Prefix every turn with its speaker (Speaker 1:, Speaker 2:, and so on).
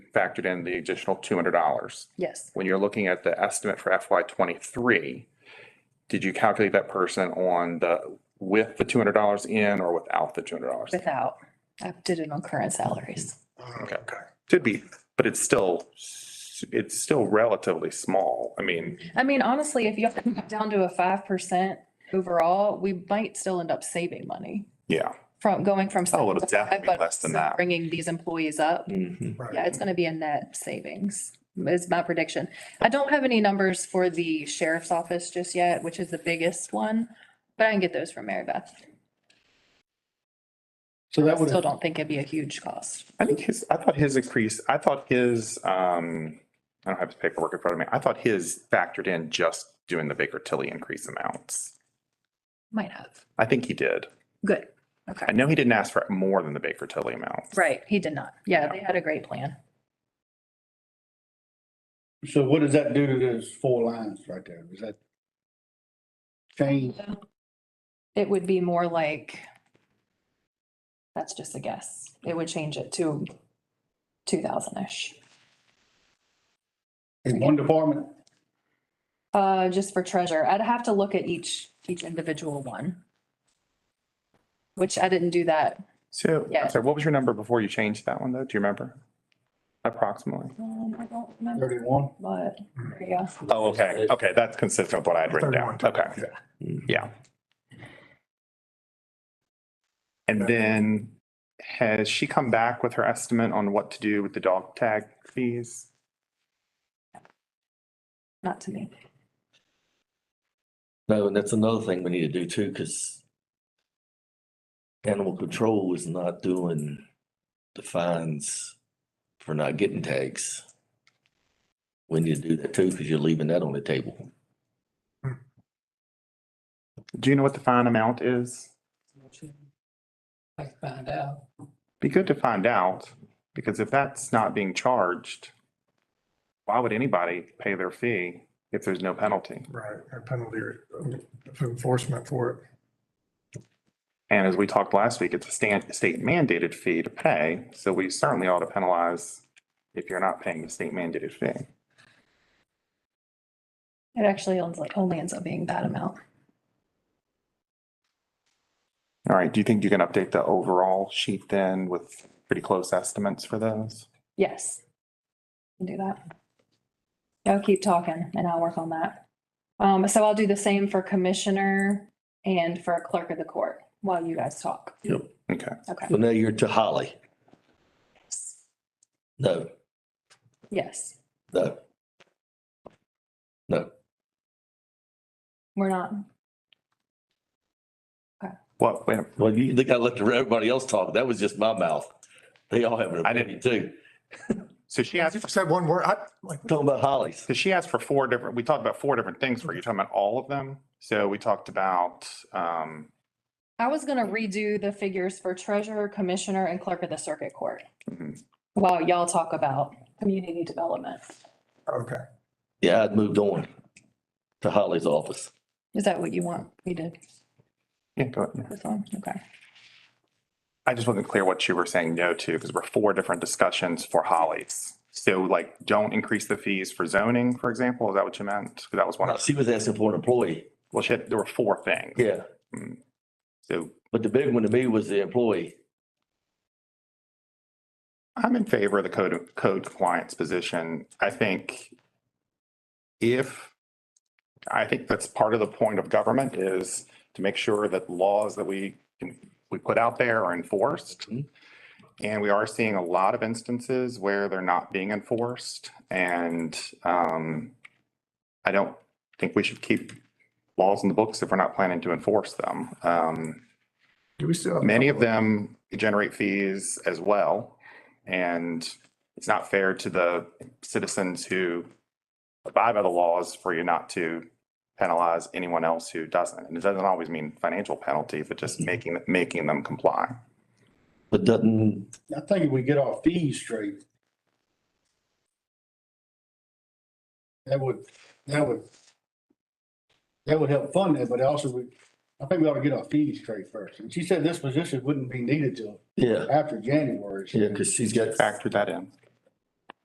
Speaker 1: factored in the additional two hundred dollars.
Speaker 2: Yes,
Speaker 1: When you're looking at the estimate for FY twenty-three, did you calculate that person on the, with the two hundred dollars in or without the two hundred dollars?
Speaker 2: without, I did it on current salaries.
Speaker 1: Okay, could be, but it's still, s- it's still relatively small. I mean,
Speaker 2: I mean, honestly, if you have to come down to a five percent overall, we might still end up saving money
Speaker 1: yeah.
Speaker 2: from going from.
Speaker 1: Oh, it'll
Speaker 2: seven to
Speaker 1: definitely
Speaker 2: five,
Speaker 1: be
Speaker 2: but
Speaker 1: less than
Speaker 2: also
Speaker 1: that. Mm-hmm.
Speaker 2: Bringing these employees up. Yeah, it's gonna be a net savings is my prediction. I don't have any numbers for the sheriff's office just yet, which is the biggest one, but I can get those from Mary Beth.
Speaker 3: So
Speaker 2: I
Speaker 3: that would,
Speaker 2: still don't think it'd be a huge cost.
Speaker 1: I think his, I thought his increase, I thought his, um, I don't have his paperwork in front of me. I thought his factored in just doing the Baker Tilly increase amounts.
Speaker 2: Might have.
Speaker 1: I think he did.
Speaker 2: Good.
Speaker 1: I
Speaker 2: Okay.
Speaker 1: know he didn't ask for more than the Baker Tilly amount.
Speaker 2: Right. He did not. Yeah, they had a great plan.
Speaker 3: so what does that do to those four lines right there? Is that change?
Speaker 2: It would be more like, that's just a guess. It would change it to two thousand-ish.
Speaker 3: In one department,
Speaker 2: Uh, just for treasure. I'd have to look at each, each individual one. Which I didn't do that.
Speaker 1: So,
Speaker 2: Yeah.
Speaker 1: I'm sorry, what was your number before you changed that one though? Do you remember? Approximately?
Speaker 2: Um, I don't remember,
Speaker 3: thirty-one?
Speaker 2: but, yeah.
Speaker 1: Oh, okay. Okay, that's consistent with what I had written down. Okay. Mm-hmm. Yeah. And then has she come back with her estimate on what to do with the dog tag fees?
Speaker 2: Not to me.
Speaker 4: No, and that's another thing we need to do too, because animal control is not doing the fines for not getting tags. We need to do that too, because you're leaving that on the table.
Speaker 1: Do you know what the fine amount is?
Speaker 5: I can find out.
Speaker 1: Be good to find out, because if that's not being charged, why would anybody pay their fee if there's no penalty?
Speaker 6: Right, a penalty or enforcement for it.
Speaker 1: And as we talked last week, it's a stand, state mandated fee to pay, so we certainly ought to penalize if you're not paying the state mandated fee.
Speaker 2: It actually owns like, only ends up being that amount.
Speaker 1: All right, do you think you can update the overall sheet then with pretty close estimates for those?
Speaker 2: Yes. Can do that. I'll keep talking and I'll work on that. Um, so I'll do the same for commissioner and for clerk of the court while you guys talk.
Speaker 4: Yep.
Speaker 1: Okay,
Speaker 2: Okay.
Speaker 4: So now you're to Holly. No,
Speaker 2: Yes,
Speaker 4: no. No,
Speaker 2: we're not.
Speaker 1: well, wait,
Speaker 4: well, you think I let everybody else talk? That was just my mouth. They all have an
Speaker 1: I didn't-
Speaker 4: opinion too.
Speaker 1: so she
Speaker 6: Yeah,
Speaker 1: asked,
Speaker 6: you said one word, I, like,
Speaker 4: Talking about Hollies.
Speaker 1: so she asked for four different, we talked about four different things, were you talking about all of them? So we talked about, um,
Speaker 2: I was gonna redo the figures for treasurer, commissioner and clerk of the circuit court
Speaker 1: mhm.
Speaker 2: while y'all talk about community development.
Speaker 6: okay,
Speaker 4: Yeah, I'd moved on to Holly's office.
Speaker 2: Is that what you want me to,
Speaker 1: yeah, go ahead.
Speaker 2: this one? Okay.
Speaker 1: I just wasn't clear what you were saying no to, because we're four different discussions for Hollies. So like, don't increase the fees for zoning, for example, is that what you meant? 'Cause That was one of,
Speaker 4: She was asking for an employee.
Speaker 1: well, she had, there were four things.
Speaker 4: Yeah.
Speaker 1: So
Speaker 4: But the big one to me was the employee.
Speaker 1: I'm in favor of the code, code compliance position. I think if, I think that's part of the point of government is to make sure that laws that we, can we put out there are enforced.
Speaker 4: Mhm.
Speaker 1: And we are seeing a lot of instances where they're not being enforced and, um, I don't think we should keep laws in the books if we're not planning to enforce them. Um,
Speaker 6: do we still? have a
Speaker 1: Many of
Speaker 6: couple
Speaker 1: them generate fees as well. And it's not fair to the citizens who abide by the laws for you not to penalize anyone else who doesn't. And it doesn't always mean financial penalty, but just making, making them comply.
Speaker 4: But doesn't,
Speaker 3: I think if we get our fees straight. That would, that would, that would help fund it, but also we, I think we ought to get our fees straight first. And she said this position wouldn't be needed till
Speaker 4: yeah,
Speaker 3: after January.
Speaker 4: yeah, because she's got,
Speaker 1: Factor that in.